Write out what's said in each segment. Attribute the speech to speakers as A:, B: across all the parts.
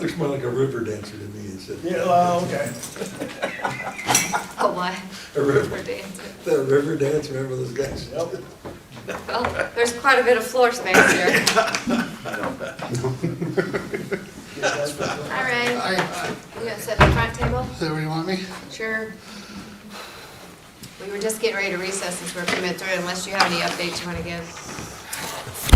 A: looks more like a river dancer to me instead.
B: Yeah, well, okay.
C: Oh, what?
A: A river,
C: dancer.
A: the river dance, remember those guys?
B: Yep.
C: Well, there's quite a bit of floor space here. All right,
D: Hi,
C: you gonna set the front table?
D: is that where you want me?
C: Sure. We were just getting ready to recess since we're coming through, unless you have any updates you wanna give?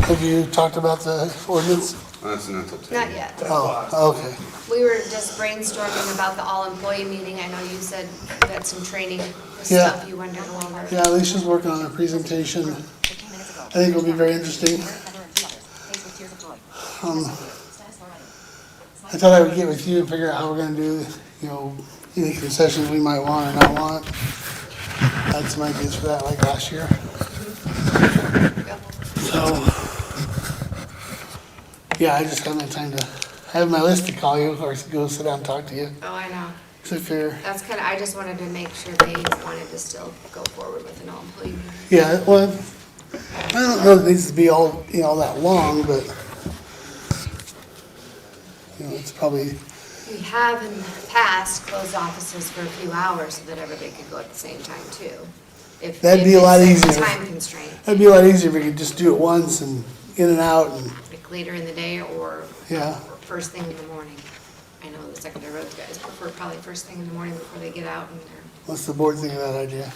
D: Have you talked about the ordinance?
E: That's not until ten.
C: Not yet.
D: Oh, okay.
C: We were just brainstorming about the all-employee meeting. I know you said you had some training with
D: Yeah.
C: stuff you wanted to go over.
D: Yeah, Alicia's working on a presentation.
F: I think it'll be very interesting.
D: Um, I thought I would get with you and figure out how we're gonna do, you know, any concessions we might want or not want. I had some ideas for that like last year,
C: Go.
D: so. Yeah, I just haven't had time to, I have my list to call you or to go sit down and talk to you.
C: Oh, I know.
D: So if you're,
C: That's kinda, I just wanted to make sure they wanted to still go forward with an all-employee meeting.
D: yeah, well, I don't know if it needs to be all, you know, that long, but. You know, it's probably,
C: We have in the past closed offices for a few hours so that everybody could go at the same time too. If-
D: That'd
C: if
D: be a lot
C: it's
D: easier.
C: Time constraint,
D: it'd be a lot easier if we could just do it once and in and out and,
C: like later in the day or
D: yeah.
C: or first thing in the morning. I know the secondary roads guys prefer probably first thing in the morning before they get out and they're,
D: What's the board think of that idea?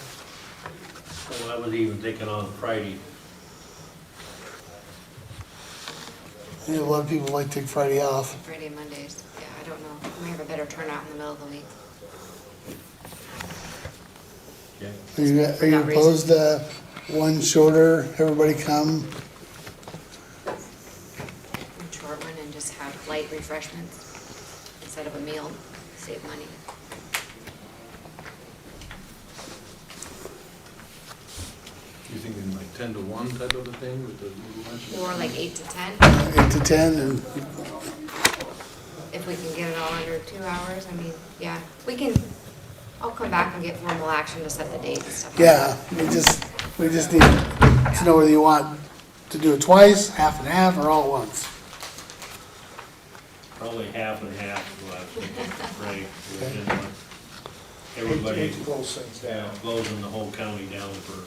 G: Well, I was even thinking on Friday,
D: I think a lot of people like to take Friday off.
C: Friday and Mondays. Yeah, I don't know. We might have a better turnout in the middle of the week.
G: yeah.
D: Are you, are you
C: Not reason.
D: opposed to one shorter, everybody come?
C: And Short one and just have light refreshments instead of a meal, save money.
E: You thinking like ten to one type of a thing with the
C: Or like eight to ten,
D: Eight to ten and,
C: if we can get it all under two hours, I mean, yeah, we can, I'll come back and get formal action to set the date and stuff. like
D: yeah, we just, we just need to know whether you want to do it twice, half and half, or all at once.
G: Probably half and half, is what I was thinking, right? Everybody,
B: Hate to close things
G: yeah,
B: down.
G: closing the whole county down for,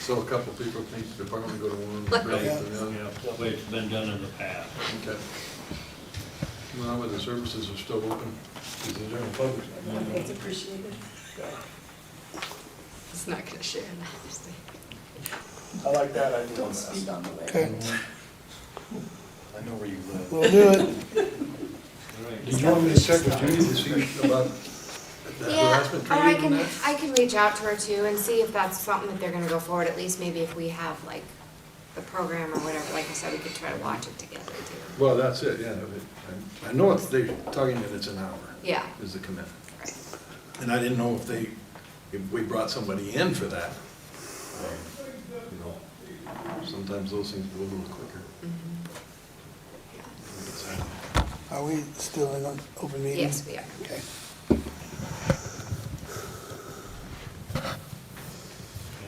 E: So a couple people think they're probably gonna go to one,
G: right,
E: rather
G: yeah,
E: than the other.
G: the way it's been done in the past.
E: Okay. Well, but the services are still open.
A: Because the general public's not gonna know.
C: that. It's not gonna share that, obviously.
B: I like that idea. Don't speak on
D: Okay,
H: I know where you live.
D: we'll do it.
G: All right.
A: Did you want me to check with Judy to see about the
C: Yeah,
A: harassment
C: or I
A: training and
C: can,
A: that?
C: I can reach out to her too and see if that's something that they're gonna go forward, at least maybe if we have like the program or whatever, like I said, we could try to watch it together too.
E: Well, that's it, yeah. I- I know it's, they're talking that it's an hour.
C: Yeah.
E: Is the commitment.
C: Right.
E: And I didn't know if they, if we brought somebody in for that. Um, you know, Sometimes those things go a little quicker.
D: Are we still in an open meeting?
C: Yes, we are.
D: Okay.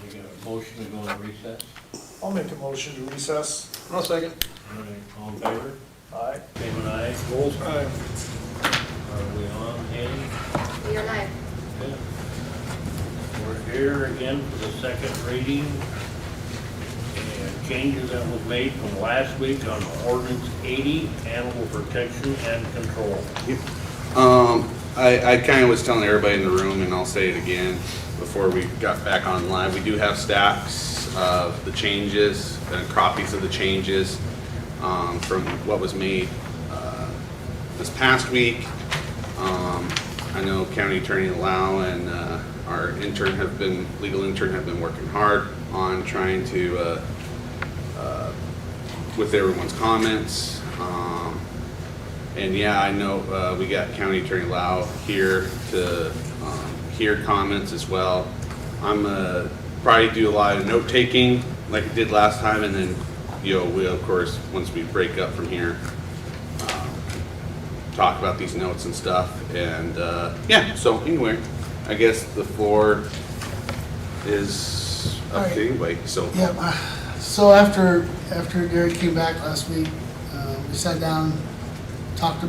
G: And you got a motion to go on recess?
B: I'll make a motion to recess.
E: I'll second.
G: All right, all in favor?
B: Aye.
G: Damon, aye. Vols, aye. Are we on, Andy?
C: You're live.
G: Okay. We're here again for the second reading. And changes that was made from last week on ordinance 80, animal protection and control.
E: Um, I, I kind of was telling everybody in the room, and I'll say it again before we got back online, we do have stacks of the changes and copies of the changes um, from what was made uh, this past week. Um, I know County Attorney Lau and uh, our intern have been, legal intern have been working hard on trying to uh, uh, with everyone's comments. Um, And yeah, I know, uh, we got County Attorney Lau here to um, hear comments as well. I'm gonna probably do a lot of note-taking like I did last time, and then, you know, we, of course, once we break up from here, um, talk about these notes and stuff, and, uh, yeah, so anyway, I guess the floor is up to anybody, so.
D: Yep, uh, so after, after Derek came back last week, uh, we sat down talked